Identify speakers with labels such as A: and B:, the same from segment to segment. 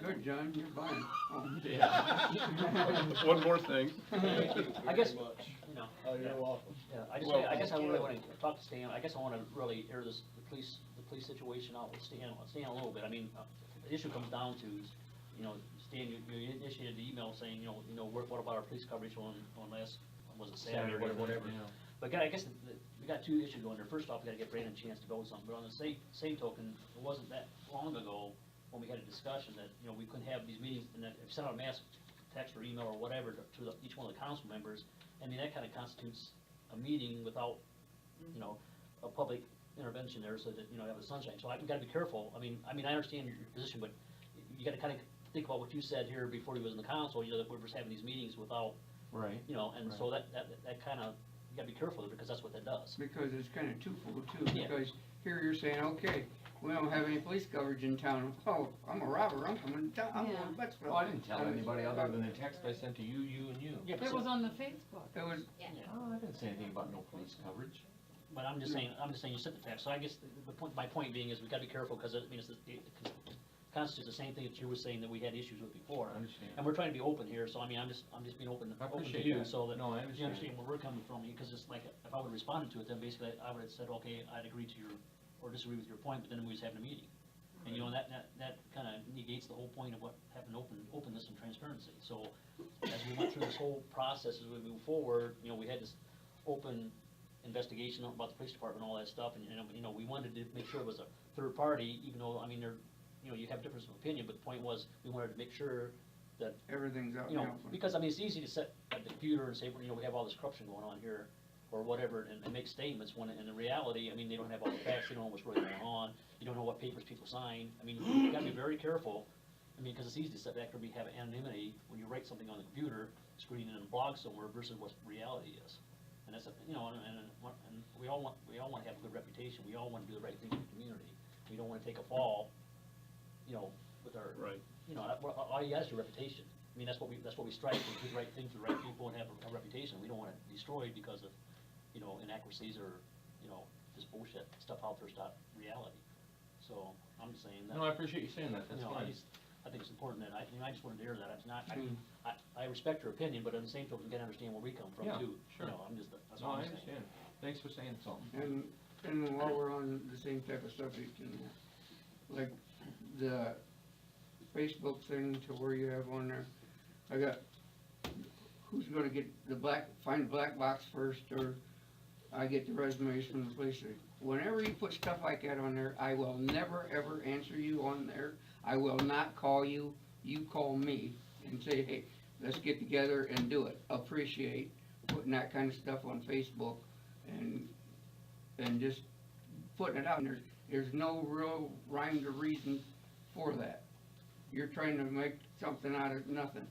A: Good, John, you're buying. Oh,
B: One more thing.
A: Thank you
C: I guess,
D: very much.
C: you know,
D: Oh, you're welcome.
C: yeah, I just,
B: Well-
C: I guess I really wanna talk to Stan, I guess I wanna really air this, the police, the police situation out with Stan, Stan a little bit, I mean, uh, the issue comes down to is, you know, Stan, you, you initiated the email saying, you know, you know, what what about our police coverage on, on last, was it Saturday, whatever, whatever. But I guess, the- we got two issues going there, first off, we gotta get Brandon a chance to build something, but on the same, same token, it wasn't that long ago when we had a discussion that, you know, we couldn't have these meetings, and that, send out a mass text or email or whatever to- to the- each one of the council members, I mean, that kinda constitutes a meeting without, you know, a public intervention there, so that, you know, have the sunshine, so I, we gotta be careful, I mean, I mean, I understand your position, but you gotta kinda think about what you said here before you was in the council, you know, that we're just having these meetings without,
E: Right.
C: you know, and so that, that, that kinda, you gotta be careful because that's what that does.
A: Because it's kinda twofold too,
C: Yeah.
A: because here you're saying, okay, we don't have any police coverage in town. Oh, I'm a robber, I'm coming to town, I'm
F: Yeah.
A: going to Buttsville.
E: Well, Oh, I didn't tell
A: Uh,
E: anybody other than the text I sent to you, you and you.
C: Yeah,
F: It was on the Facebook.
A: It was,
E: Oh, I didn't say anything about no police coverage.
C: But I'm just saying, I'm just saying you set the tax, so I guess the, the point, my point being is we gotta be careful, cause it, I mean, it's, the- it constitutes the same thing that you were saying that we had issues with
E: I
C: before.
E: understand.
C: And we're trying to be open here, so I mean, I'm just, I'm just being open,
E: I
C: open to
E: appreciate
C: you,
E: that.
C: so that
E: No, I
C: you
E: understand.
C: understand where we're coming from, because it's like, if I would've responded to it, then basically I would've said, okay, I'd agree to your, or disagree with your point, but then we was having a meeting. And you know, that, that, that kinda negates the whole point of what, having open, openness and transparency, so as we went through this whole process, as we move forward, you know, we had this open investigation about the police department, all that stuff, and, and, you know, we wanted to make sure it was a third party, even though, I mean, there, you know, you have difference of opinion, but the point was, we wanted to make sure that
A: everything's out
C: you know,
A: now.
C: because I mean, it's easy to set a computer and say, well, you know, we have all this corruption going on here, or whatever, and, and make statements, when in the reality, I mean, they don't have all the facts, they don't know what's really going on, you don't know what papers people sign, I mean, you gotta be very careful, I mean, because it's easy to set back, or we have anonymity, when you write something on the computer, screen it in a blog somewhere versus what reality is. And that's, a- you know, and, and, and we all want, we all wanna have a good reputation, we all wanna do the right thing for the community, we don't wanna take a fall, you know, with our,
B: Right.
C: you know, that- well, all all you got is your reputation. I mean, that's what we, that's what we strive to, do the right thing for the right people and have a- a reputation. We don't want it destroyed because of, you know, inaccuracies or, you know, just bullshit, stuff out there's not reality. So, I'm just saying that,
E: No, I appreciate you saying that,
C: you
E: that's
C: know, I
E: fine.
C: just, I think it's important that, I, you know, I just wanted to air that, it's not, I, I, I respect your opinion, but on the same token, you gotta understand where we come from
E: Yeah,
C: too.
E: sure.
C: You know, I'm just, that's
E: No,
C: all
E: I
C: I'm saying.
E: understand. Thanks for saying something.
A: And, and while we're on the same type of subject, and like the Facebook thing to where you have on there, I got, who's gonna get the black, find black box first, or I get the resumes from the police. station. Whenever you put stuff like that on there, I will never, ever answer you on there. I will not call you, you call me and say, hey, let's get together and do it. Appreciate putting that kind of stuff on Facebook and and just putting it out, and there's, there's no real rhyme or reason for that. You're trying to make something out of nothing.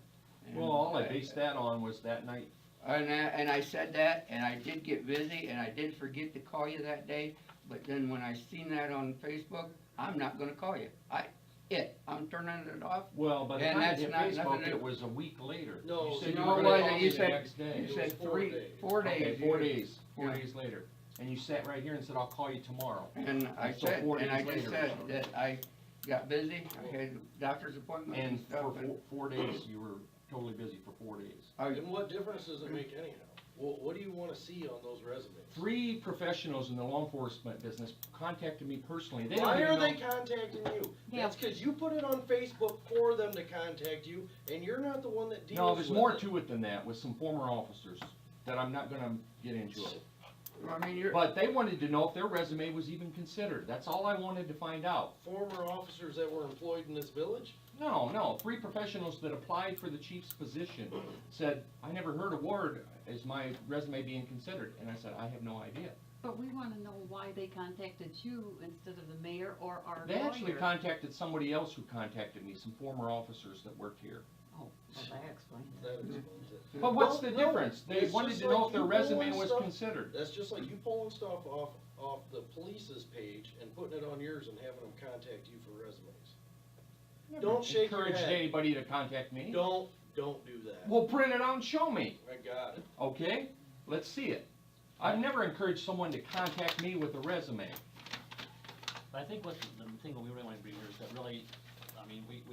A: And
E: Well, all I based that on was that night
A: And I, and I said that, and I did get busy, and I did forget to call you that day, but then when I seen that on Facebook, I'm not gonna call you. I, it, I'm turning it off.
E: Well, by the
A: And
E: time I
A: that's
E: hit
A: not nothing
E: Facebook,
A: to-
E: it was a week later.
D: No,
E: You said
D: no,
E: you were
D: it
E: gonna
D: wasn't.
E: call
D: You
E: me the
A: said-
E: next day.
A: You
D: It was
A: said
D: four
A: three,
D: days.
A: four
E: Okay,
A: days.
E: Four
A: you-
E: days, four
A: Yeah.
E: days later. And you sat right here and said, I'll call you tomorrow.
A: And I
E: So
A: said,
E: four
A: and I
E: days
A: just
E: later.
A: said that I got busy, I had doctor's appointments and
E: And
A: stuff.
E: for
A: and-
E: four, four days, you were totally busy for four days.
A: I-
D: And what difference does it make anyhow? What, what do you wanna see on those resumes?
E: Three professionals in the law enforcement business contacted me personally. They don't
D: Why
E: even
D: are they
E: know-
D: contacting you?
F: Yeah.
D: That's cause you put it on Facebook for them to contact you, and you're not the one that deals with it.
E: No, there's more to it than that, with some former officers that I'm not gonna get into it.
A: I mean, you're,
E: But they wanted to know if their resume was even considered. That's all I wanted to find out.
D: Former officers that were employed in this village?
E: No, no, three professionals that applied for the chief's position said, I never heard a word, is my resume being considered? And I said, I have no idea.
F: But we want to know why they contacted you instead of the mayor or our
E: They actually
F: lawyer.
E: contacted somebody else who contacted me, some former officers that worked here.
F: Oh, well, that explains it.
D: That explains it.
E: But what's the
D: Well, no,
E: difference? They
D: it's
E: wanted
D: just
E: to know
D: like
E: if their
D: you
E: resume
D: pulling
E: was
D: stuff-
E: considered.
D: That's just like you pulling stuff off, off the police's page and putting it on yours and having them contact you for resumes. Don't shake your
E: Encouraged
D: head.
E: anybody to contact me.
D: Don't, don't do that.
E: Well, print it out and show me,
D: I got it.
E: okay? Let's see it. I've never encouraged someone to contact me with a resume.
C: But I think what, the the thing that we really wanna bring here is that really, I mean, we,